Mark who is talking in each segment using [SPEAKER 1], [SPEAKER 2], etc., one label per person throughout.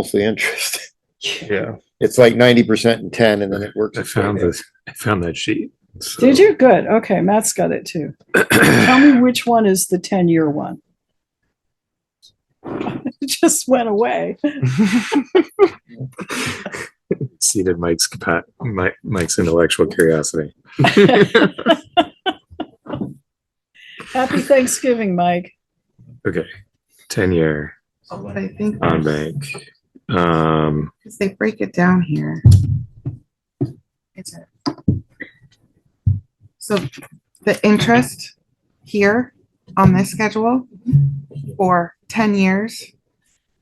[SPEAKER 1] mostly interest.
[SPEAKER 2] Yeah,
[SPEAKER 1] It's like ninety percent and ten, and then it works.
[SPEAKER 2] I
[SPEAKER 1] its way
[SPEAKER 2] found
[SPEAKER 1] down.
[SPEAKER 2] this, I found that sheet. So-
[SPEAKER 3] Did you? Good. Okay, Matt's got it too. Tell me which one is the ten-year one. It just went away.
[SPEAKER 2] Seated Mike's, capa- Mi- Mike's intellectual curiosity.
[SPEAKER 3] Happy Thanksgiving, Mike.
[SPEAKER 2] Okay, ten-year
[SPEAKER 4] Oh, What I think,
[SPEAKER 2] on bank. Um,
[SPEAKER 4] because they break it down here. Is it? So the interest here on this schedule for ten years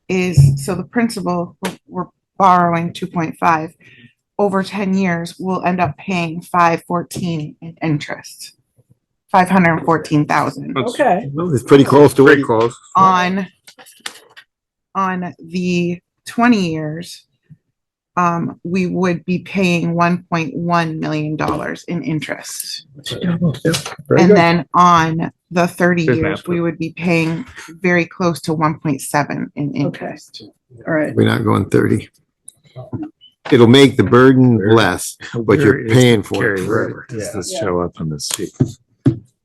[SPEAKER 4] is, so the principal, we're- we're borrowing two point five. Over ten years, we'll end up paying five fourteen in interest. Five hundred and fourteen thousand
[SPEAKER 3] Okay,
[SPEAKER 1] Well, It's pretty close to what
[SPEAKER 2] pretty
[SPEAKER 1] you-
[SPEAKER 2] close.
[SPEAKER 4] on on the twenty years, um, we would be paying one point one million dollars in interest.
[SPEAKER 1] Very
[SPEAKER 4] And
[SPEAKER 1] good.
[SPEAKER 4] then on the thirty
[SPEAKER 2] Good
[SPEAKER 4] years,
[SPEAKER 2] math.
[SPEAKER 4] we would be paying very close to one point seven in interest.
[SPEAKER 3] all right.
[SPEAKER 1] We're not going thirty. It'll make the burden less, but
[SPEAKER 2] Where
[SPEAKER 1] you're
[SPEAKER 2] is
[SPEAKER 1] paying for it
[SPEAKER 2] Carrie
[SPEAKER 1] forever.
[SPEAKER 2] River? Does this
[SPEAKER 3] Yeah.
[SPEAKER 2] show up on this sheet?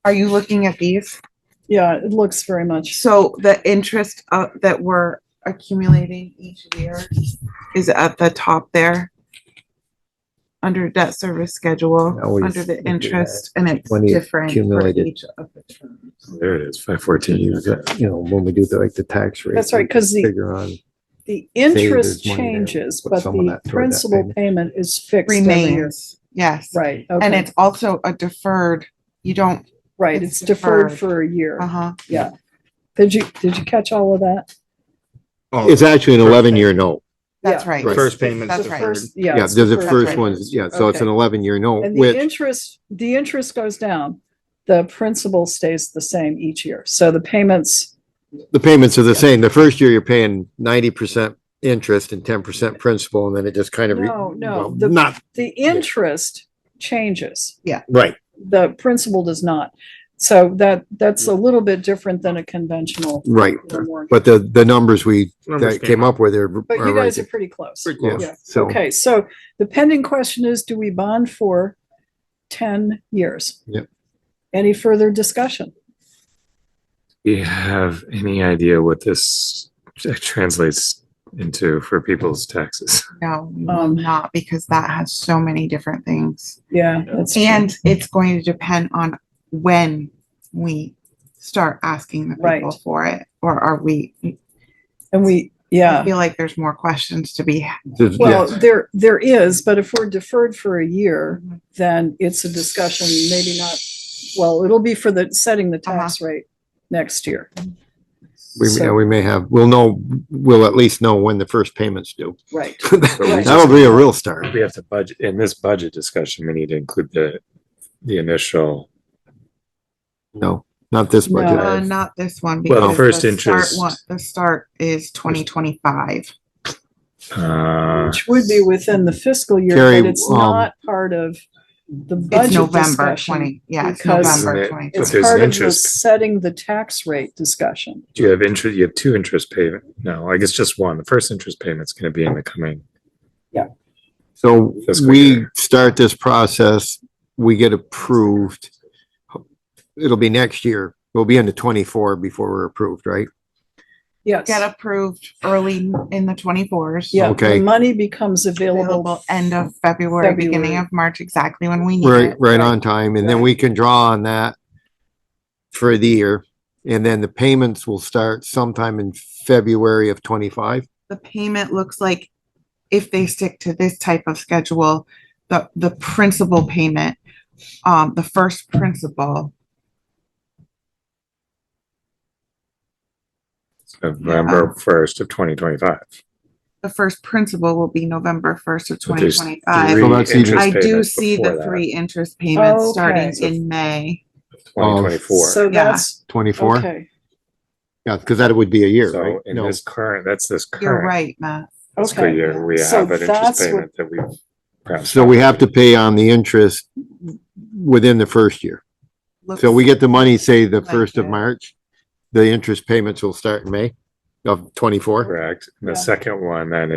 [SPEAKER 4] Are you looking at these?
[SPEAKER 3] Yeah, it looks very much.
[SPEAKER 4] So the interest uh, that we're accumulating each year is at the top there. Under debt service schedule,
[SPEAKER 1] Always
[SPEAKER 4] under the
[SPEAKER 1] look at
[SPEAKER 4] interest, and it's
[SPEAKER 1] when you
[SPEAKER 4] different for
[SPEAKER 1] accumulate it.
[SPEAKER 4] each of the terms.
[SPEAKER 2] There it is, five fourteen.
[SPEAKER 1] You know, when we do the, like, the tax rate.
[SPEAKER 3] That's right, because the,
[SPEAKER 1] Figure on,
[SPEAKER 3] the
[SPEAKER 1] there's
[SPEAKER 3] interest
[SPEAKER 1] money there,
[SPEAKER 3] changes,
[SPEAKER 1] put
[SPEAKER 3] but
[SPEAKER 1] some of
[SPEAKER 3] the
[SPEAKER 1] that toward that
[SPEAKER 3] principal
[SPEAKER 1] payment.
[SPEAKER 3] payment is fixed every year.
[SPEAKER 4] Remains, yes,
[SPEAKER 3] Right,
[SPEAKER 4] and
[SPEAKER 3] okay,
[SPEAKER 4] it's also a deferred, you don't,
[SPEAKER 3] right.
[SPEAKER 4] it's
[SPEAKER 3] It's deferred
[SPEAKER 4] deferred.
[SPEAKER 3] for a year.
[SPEAKER 4] uh-huh,
[SPEAKER 3] Did you, did you catch all of that?
[SPEAKER 1] it's actually an eleven-year note.
[SPEAKER 4] that's
[SPEAKER 3] Yeah.
[SPEAKER 4] right.
[SPEAKER 1] Right.
[SPEAKER 5] First payment
[SPEAKER 4] That's
[SPEAKER 5] is
[SPEAKER 4] right.
[SPEAKER 5] deferred.
[SPEAKER 3] First- Yeah.
[SPEAKER 1] Yeah,
[SPEAKER 3] it's
[SPEAKER 1] there's the
[SPEAKER 3] deferred.
[SPEAKER 1] first
[SPEAKER 4] Right.
[SPEAKER 1] one, yeah, so it's
[SPEAKER 3] Okay.
[SPEAKER 1] an eleven-year note,
[SPEAKER 3] And the
[SPEAKER 1] which,
[SPEAKER 3] interest, the interest goes down. The principal stays the same each year. So the payments,
[SPEAKER 1] the payments are the same. The first year, you're paying ninety percent interest and ten percent principal, and then it just kind of. re-
[SPEAKER 3] No, no,
[SPEAKER 1] well,
[SPEAKER 3] the-
[SPEAKER 1] Not,
[SPEAKER 3] the interest changes.
[SPEAKER 1] right,
[SPEAKER 3] The principal does not. So that, that's a little bit different than a conventional.
[SPEAKER 1] right.
[SPEAKER 3] warrant.
[SPEAKER 1] But the, the numbers we,
[SPEAKER 2] Numbers
[SPEAKER 1] that came up with are.
[SPEAKER 3] But
[SPEAKER 1] are
[SPEAKER 3] you
[SPEAKER 1] right
[SPEAKER 3] guys are
[SPEAKER 1] there.
[SPEAKER 3] pretty close.
[SPEAKER 2] Pretty
[SPEAKER 1] Yeah,
[SPEAKER 2] close.
[SPEAKER 3] Yeah.
[SPEAKER 1] So,
[SPEAKER 3] Okay, so the pending question is, do we bond for ten years?
[SPEAKER 1] Yep.
[SPEAKER 3] Any further discussion?
[SPEAKER 2] Do you have any idea what this translates into for people's taxes?
[SPEAKER 4] No, we will
[SPEAKER 3] Um,
[SPEAKER 4] not, because that has so many different things.
[SPEAKER 3] Yeah, that's true.
[SPEAKER 4] And it's going to depend on when we start asking the
[SPEAKER 3] Right.
[SPEAKER 4] people for it, or are we,
[SPEAKER 3] And we,
[SPEAKER 4] I
[SPEAKER 3] yeah.
[SPEAKER 4] feel like there's more questions to be.
[SPEAKER 1] there's-
[SPEAKER 3] Well,
[SPEAKER 1] yeah,
[SPEAKER 3] there, there is, but if we're deferred for a year, then it's a discussion, maybe not, well, it'll be for the, setting the
[SPEAKER 4] Uh-huh.
[SPEAKER 3] tax rate next year.
[SPEAKER 1] we, yeah,
[SPEAKER 3] So,
[SPEAKER 1] we may have, we'll know, we'll at least know when the first payments due.
[SPEAKER 3] right, Right.
[SPEAKER 1] That'll be a real start.
[SPEAKER 2] We have to budget, in this budget discussion, we need to include the, the initial,
[SPEAKER 1] No, not this budget.
[SPEAKER 3] No.
[SPEAKER 4] Uh, not this one.
[SPEAKER 2] Well,
[SPEAKER 4] because
[SPEAKER 2] first
[SPEAKER 4] the start
[SPEAKER 2] interest-
[SPEAKER 4] one- The start is twenty twenty-five.
[SPEAKER 2] uh,
[SPEAKER 3] which would be within the fiscal year,
[SPEAKER 1] Carrie,
[SPEAKER 3] but it's
[SPEAKER 1] um,
[SPEAKER 3] not part of the
[SPEAKER 4] It's
[SPEAKER 3] budget
[SPEAKER 4] November
[SPEAKER 3] discussion.
[SPEAKER 4] twenty, yeah, it's
[SPEAKER 3] because-
[SPEAKER 4] November
[SPEAKER 2] Isn't it-
[SPEAKER 4] twenty.
[SPEAKER 2] but
[SPEAKER 3] It's
[SPEAKER 2] there's
[SPEAKER 3] part of the
[SPEAKER 2] interest.
[SPEAKER 3] setting the tax rate discussion.
[SPEAKER 2] you have interest, you have two interest payment, no, I guess just one, the first interest payment's gonna be in the coming.
[SPEAKER 1] So
[SPEAKER 2] Fiscal
[SPEAKER 1] we
[SPEAKER 2] year.
[SPEAKER 1] start this process, we get approved. It'll be next year. We'll be into twenty-four before we're approved, right?
[SPEAKER 3] Yes.
[SPEAKER 4] Get approved early in the twenty-fours.
[SPEAKER 3] Yeah, the
[SPEAKER 1] Okay.
[SPEAKER 3] money becomes available.
[SPEAKER 4] Available end of February, beginning
[SPEAKER 3] February.
[SPEAKER 4] of March, exactly when we need
[SPEAKER 1] Right,
[SPEAKER 4] it.
[SPEAKER 1] right on time, and then we can draw on that for the year, and then the payments will start sometime in February of twenty-five.
[SPEAKER 4] The payment looks like, if they stick to this type of schedule, the, the principal payment, um, the first principal.
[SPEAKER 2] November first of twenty twenty-five.
[SPEAKER 4] The first principal will be November first of
[SPEAKER 2] But
[SPEAKER 4] twenty
[SPEAKER 2] there's
[SPEAKER 4] twenty-five.
[SPEAKER 1] So that's even-
[SPEAKER 4] I do see the three interest payments starting in May.
[SPEAKER 1] Oh,
[SPEAKER 2] Twenty twenty-four,
[SPEAKER 3] So that's,
[SPEAKER 1] Twenty-four,
[SPEAKER 3] okay,
[SPEAKER 1] yeah, because that would be a year, right?
[SPEAKER 2] so in
[SPEAKER 1] No,
[SPEAKER 2] this current, that's this
[SPEAKER 4] You're
[SPEAKER 2] current
[SPEAKER 4] right, Matt.
[SPEAKER 2] fiscal
[SPEAKER 3] okay.
[SPEAKER 2] year, we
[SPEAKER 3] So
[SPEAKER 2] have an
[SPEAKER 3] that's
[SPEAKER 2] interest
[SPEAKER 3] what-
[SPEAKER 2] payment that we. perhaps-
[SPEAKER 1] so we have to pay on the interest within the first year. So we
[SPEAKER 4] Looks-
[SPEAKER 1] get the money, say, the
[SPEAKER 4] Like
[SPEAKER 1] first of
[SPEAKER 4] that.
[SPEAKER 1] March, the interest payments will start in May.
[SPEAKER 6] of twenty-four?
[SPEAKER 2] correct? And the
[SPEAKER 1] Yeah.
[SPEAKER 2] second one then